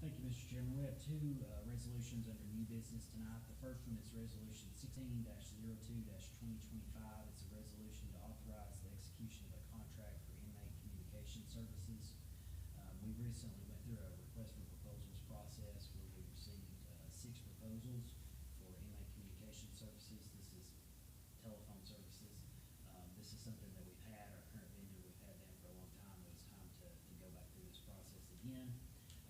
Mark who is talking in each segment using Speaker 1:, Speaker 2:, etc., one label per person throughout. Speaker 1: Chairman, we have two uh, resolutions under new business tonight. The first one is Resolution sixteen 2 twenty twenty-five. It's a resolution to authorize the execution of a contract for inmate communication services. Um, We recently went through a request for proposals process where we received uh, six proposals for inmate communication services. This is telephone services. Um, This is something that we've had, our current vendor, we've had them for a long time. It was time to to go back through this process again.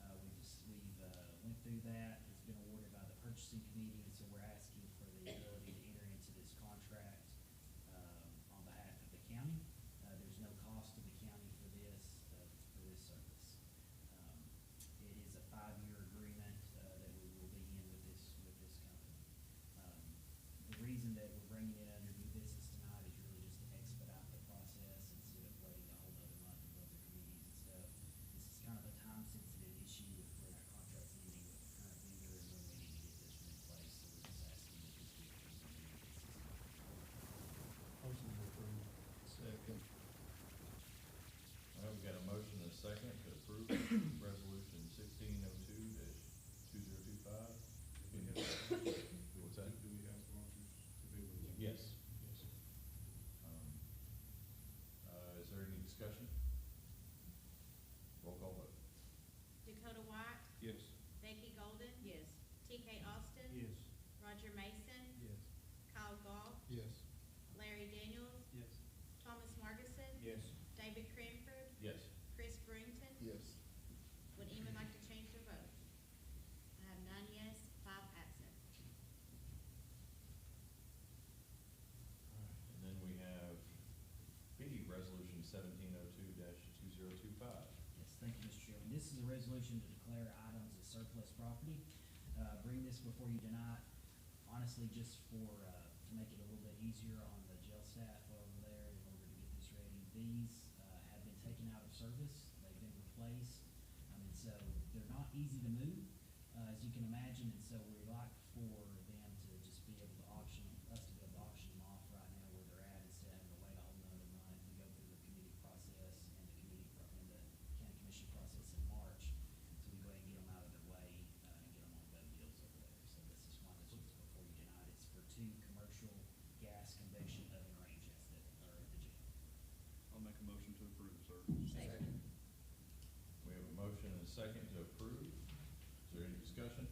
Speaker 1: Uh, we just, we've, uh, went through that, it's been awarded by the purchasing committee, and so we're asking for the ability to enter into this contract, um, on behalf of the county. Uh, there's no cost to the county for this, uh, for this service. Um, It is a five-year agreement, uh, that we will be in with this, with this company. Um, The reason that we're bringing it under new business tonight is really just to expedite the process instead of waiting a whole other month with other committees and stuff. This is kind of a time-sensitive issue with where our contract's ending with the current vendor and when we need to get this one in place, so we're just asking that this be approved under new business.
Speaker 2: Motion to approve.
Speaker 3: Second. All right, we got a motion and a second to approve resolution sixteen oh two two zero two five.
Speaker 4: Do we have,
Speaker 3: What's
Speaker 4: do we have sponsors to be with? us?
Speaker 3: Yes. Yes. Um, Uh, is there any discussion? Roll call vote.
Speaker 5: Dakota White,
Speaker 4: Yes.
Speaker 5: Becky Golden,
Speaker 6: Yes.
Speaker 5: TK Austin.
Speaker 2: Yes.
Speaker 5: Roger Mason,
Speaker 2: Yes.
Speaker 5: Kyle Gall,
Speaker 4: Yes.
Speaker 5: Larry Daniels,
Speaker 2: Yes.
Speaker 5: Thomas Markison,
Speaker 2: Yes.
Speaker 5: David Cranford,
Speaker 3: Yes.
Speaker 5: Chris Brington.
Speaker 4: Yes.
Speaker 5: Would anyone like to change their vote? I have nine yes, five absent.
Speaker 3: And then we have B, resolution seventeen oh two two zero two five.
Speaker 1: Yes, thank you, Mr. Chairman. This is a resolution to declare items as surplus property. Uh, bring this before you tonight, honestly, just for, uh, to make it a little bit easier on the jail staff over there in order to get this ready. These, uh, have been taken out of service, they've been replaced, I mean, so they're not easy to move, uh, as you can imagine, and so we'd like for them to just be able to auction, us to be able to auction them off right now where they're at instead of having to wait a whole nother month to go through the committee process and the committee, pro- and the county commission process in March. So we go ahead and get them out of their way, uh, and get them on better deals over there. So this is why this was before you tonight. It's for two commercial gas convection oven ranges that are at the jail.
Speaker 7: I'll make a motion to approve, sir.
Speaker 6: Second.
Speaker 3: We have a motion and a second to approve. Is there any discussion?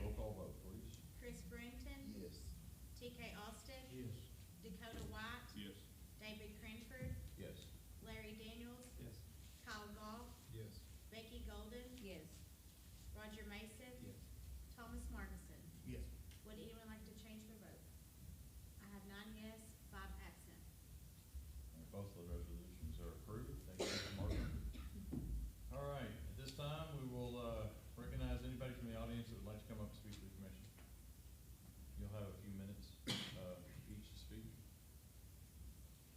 Speaker 3: Roll call vote, please.
Speaker 5: Chris Brington,
Speaker 4: Yes.
Speaker 5: TK Austin,
Speaker 2: Yes.
Speaker 5: Dakota White,
Speaker 7: Yes.
Speaker 5: David Cranford,
Speaker 3: Yes.
Speaker 5: Larry Daniels,
Speaker 2: Yes.
Speaker 5: Kyle Gall,
Speaker 4: Yes.
Speaker 5: Becky Golden,
Speaker 6: Yes.
Speaker 5: Roger Mason,
Speaker 2: Yes.
Speaker 5: Thomas Markison.
Speaker 2: Yes.
Speaker 5: Would anyone like to change their vote? I have nine yes, five absent.
Speaker 3: And Both of the resolutions are approved. Thank you, Mr. Martin. All right, at this time, we will, uh, recognize anybody from the audience that would like to come up and speak to the commission. You'll have a few minutes, uh, each to speak.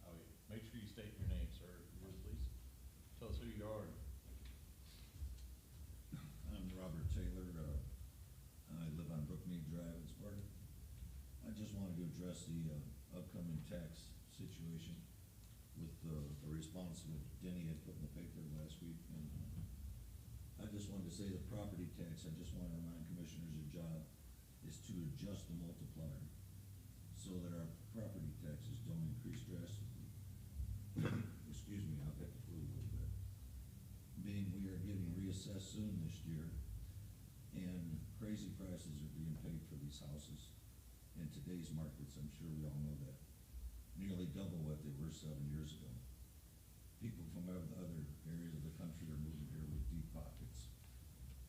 Speaker 3: Oh, yeah. Make sure you state your name, sir, if you would, please. Tell us who you are.
Speaker 8: I'm Robert Taylor, uh, I live on Brookmead Drive in Sparta. I just wanted to address the, uh, upcoming tax situation with, uh, the response that Denny had put in the paper last week, and uh, I just wanted to say the property tax, I just wanna remind commissioners, your job is to adjust the multiplier so that our property taxes don't increase drastically. Excuse me, I'll get the flu a little bit being we are getting reassessed soon this year, and crazy prices are being paid for these houses. In today's markets, I'm sure we all know that, nearly double what they were seven years ago. People from other other areas of the country are moving here with deep pockets,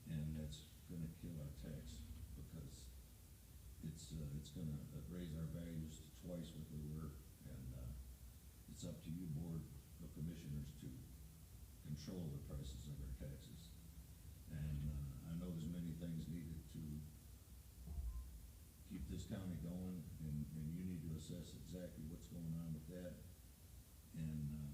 Speaker 8: and that's gonna kill our tax, because it's, uh, it's gonna uh, raise our values to twice what they were, and, uh, it's up to you, board of commissioners, to control the prices of our taxes. And, uh, I know there's many things needed to keep this county going, and, and you need to assess exactly what's going on with that. And, uh,